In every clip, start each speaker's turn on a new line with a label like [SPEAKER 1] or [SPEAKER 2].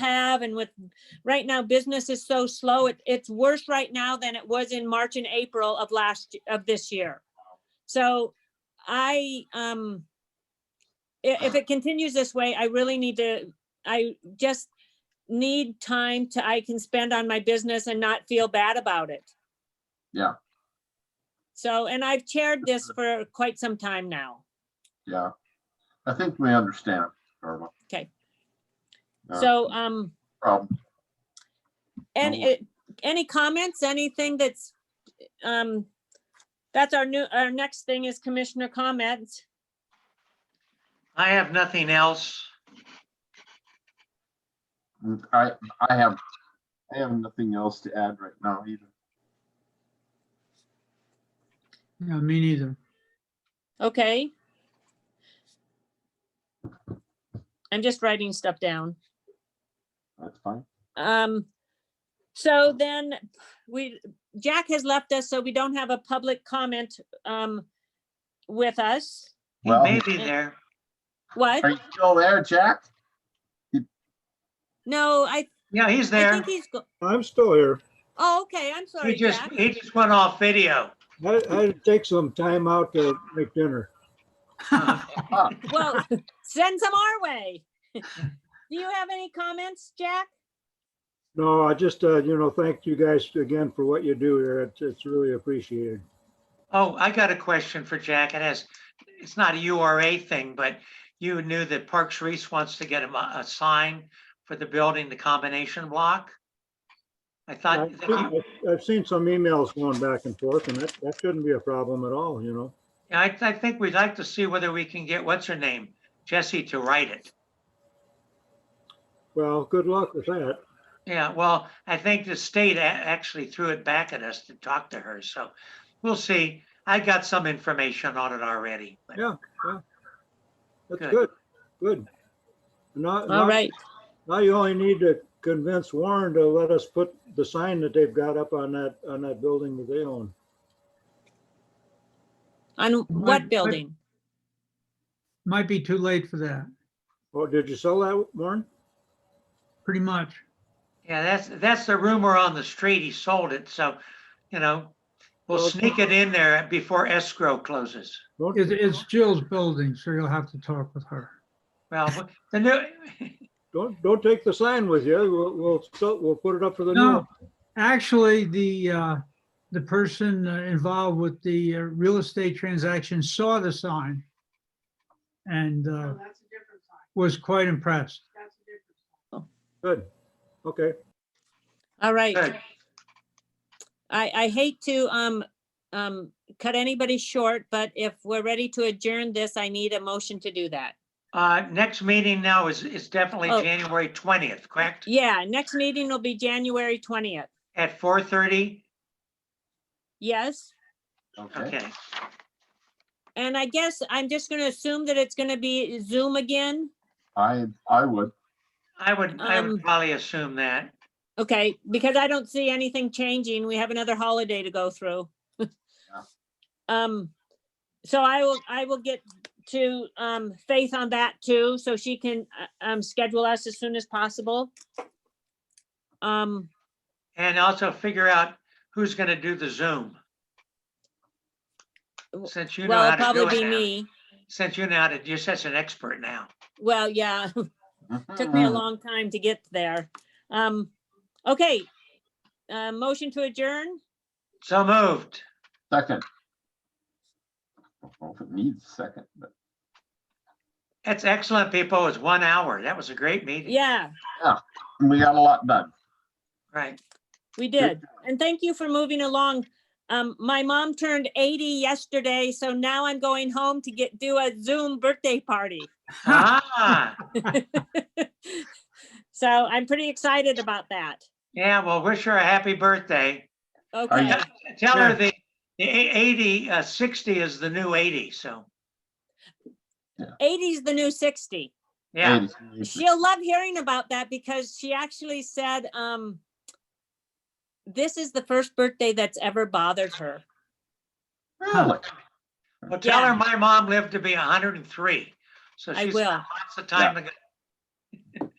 [SPEAKER 1] have and with, right now, business is so slow. It, it's worse right now than it was in March and April of last, of this year. So I, um, i- if it continues this way, I really need to, I just need time to, I can spend on my business and not feel bad about it.
[SPEAKER 2] Yeah.
[SPEAKER 1] So, and I've chaired this for quite some time now.
[SPEAKER 2] Yeah, I think we understand, Irma.
[SPEAKER 1] Okay.
[SPEAKER 2] Uh,
[SPEAKER 1] So, um,
[SPEAKER 2] Problem.
[SPEAKER 1] And
[SPEAKER 2] Well,
[SPEAKER 1] it, any comments, anything that's, um, that's our new, our next thing is commissioner comments.
[SPEAKER 3] I have nothing else.
[SPEAKER 2] I, I have, I have nothing else to add right now either.
[SPEAKER 4] Yeah, me neither.
[SPEAKER 1] Okay. I'm just writing stuff down.
[SPEAKER 2] That's fine.
[SPEAKER 1] Um, so then we, Jack has left us, so we don't have a public comment, um, with us.
[SPEAKER 3] He
[SPEAKER 2] Well-
[SPEAKER 3] may be there.
[SPEAKER 1] What?
[SPEAKER 2] Are you still there, Jack?
[SPEAKER 1] No, I,
[SPEAKER 3] Yeah, he's
[SPEAKER 1] I
[SPEAKER 3] there.
[SPEAKER 1] think he's, go-
[SPEAKER 5] I'm still here.
[SPEAKER 1] oh, okay, I'm
[SPEAKER 3] He
[SPEAKER 1] sorry,
[SPEAKER 3] just,
[SPEAKER 1] Jack.
[SPEAKER 3] he just went off video.
[SPEAKER 5] I had to take some time out to make dinner.
[SPEAKER 3] Uh,
[SPEAKER 1] Well, send some our way. Do you have any comments, Jack?
[SPEAKER 5] No, I just, uh, you know, thank you guys again for what you do here. It's, it's really appreciated.
[SPEAKER 3] Oh, I got a question for Jack. It has, it's not a URA thing, but you knew that Parks Reese wants to get him a, a sign for the building, the combination block? I
[SPEAKER 5] I-
[SPEAKER 3] thought, that Uh, you-
[SPEAKER 5] I've I've seen some emails going back and forth and that, that shouldn't be a problem at all, you know?
[SPEAKER 3] I, I think we'd like to see whether we can get, what's her name? Jesse to write it.
[SPEAKER 5] Well, good luck with that.
[SPEAKER 3] Yeah, well, I think the state a- actually threw it back at us to talk to her, so we'll see. I got some information on it already. but-
[SPEAKER 5] Yeah. That's
[SPEAKER 3] Good.
[SPEAKER 5] good, good. Now,
[SPEAKER 1] All
[SPEAKER 5] now,
[SPEAKER 1] right.
[SPEAKER 5] now you only need to convince Warren to let us put the sign that they've got up on that, on that building that they own.
[SPEAKER 1] On
[SPEAKER 4] Right,
[SPEAKER 1] what
[SPEAKER 4] but-
[SPEAKER 1] building?
[SPEAKER 4] Might be too late for that,
[SPEAKER 5] Oh, did you sell that, Warren?
[SPEAKER 4] pretty much.
[SPEAKER 3] Yeah, that's, that's the rumor on the street. He sold it, so, you know, we'll
[SPEAKER 5] Well,
[SPEAKER 3] sneak it in there before escrow closes.
[SPEAKER 5] Don't-
[SPEAKER 4] It's, it's Jill's building, so you'll have to talk with her.
[SPEAKER 3] Well, the new,
[SPEAKER 5] Don't, don't take the sign with you. We'll, we'll, sell- we'll put it up for the new.
[SPEAKER 4] No, actually, the, uh, the person uh, involved with the uh, real estate transaction saw the sign and, uh, was quite impressed.
[SPEAKER 5] Good. Okay.
[SPEAKER 1] All right.
[SPEAKER 3] Good.
[SPEAKER 1] I, I hate to, um, um, cut anybody short, but if we're ready to adjourn this, I need a motion to do that.
[SPEAKER 3] uh, next meeting now is, is definitely
[SPEAKER 1] Oh.
[SPEAKER 3] January twentieth, correct?
[SPEAKER 1] Yeah, next meeting will be January twentieth.
[SPEAKER 3] At four thirty?
[SPEAKER 1] Yes?
[SPEAKER 2] Okay.
[SPEAKER 3] Okay,
[SPEAKER 1] And I guess I'm just gonna assume that it's gonna be Zoom again.
[SPEAKER 2] I, I would.
[SPEAKER 3] I would, I
[SPEAKER 1] Um,
[SPEAKER 3] would probably assume that.
[SPEAKER 1] Okay, because I don't see anything changing. We have another holiday to go through. Um, so I will, I will get to, um, Faith on that too, so she can, uh, um, schedule us as soon as possible. Um,
[SPEAKER 3] And also figure out who's gonna do the Zoom.
[SPEAKER 1] W-
[SPEAKER 3] Since you know
[SPEAKER 1] well,
[SPEAKER 3] how
[SPEAKER 1] it'll
[SPEAKER 3] to do
[SPEAKER 1] probably be
[SPEAKER 3] it now.
[SPEAKER 1] me.
[SPEAKER 3] Since you know how to, you're such an expert now.
[SPEAKER 1] Well, yeah, took
[SPEAKER 2] Mm-hmm.
[SPEAKER 1] me a long time to get there. Um, okay. Uh, motion to adjourn?
[SPEAKER 3] So moved.
[SPEAKER 2] Second. I don't know if it needs a second, but
[SPEAKER 3] That's excellent, people. It was one hour. That was a great meeting.
[SPEAKER 1] Yeah,
[SPEAKER 2] we got a lot done.
[SPEAKER 3] Right.
[SPEAKER 1] we did. And thank you for moving along. Um, my mom turned eighty yesterday, so now I'm going home to get, do a Zoom birthday party.
[SPEAKER 3] Ah,
[SPEAKER 1] So I'm pretty excited about that.
[SPEAKER 3] yeah, well, wish her a happy birthday.
[SPEAKER 1] Okay,
[SPEAKER 2] Yeah.
[SPEAKER 3] Tell her
[SPEAKER 4] Yeah.
[SPEAKER 3] the, the eight- eighty, uh, sixty is the new eighty, so,
[SPEAKER 1] eighty's the new sixty.
[SPEAKER 3] yeah.
[SPEAKER 2] Ladies and gentlemen,
[SPEAKER 1] She'll love hearing about that because she actually said, um, this is the first birthday that's ever bothered her.
[SPEAKER 2] Really?
[SPEAKER 3] Well, tell
[SPEAKER 1] Yeah.
[SPEAKER 3] her my mom lived to be hundred and three, so
[SPEAKER 1] I
[SPEAKER 3] she's
[SPEAKER 1] will.
[SPEAKER 3] got lots of time to go.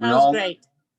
[SPEAKER 2] We all-
[SPEAKER 1] Sounds great.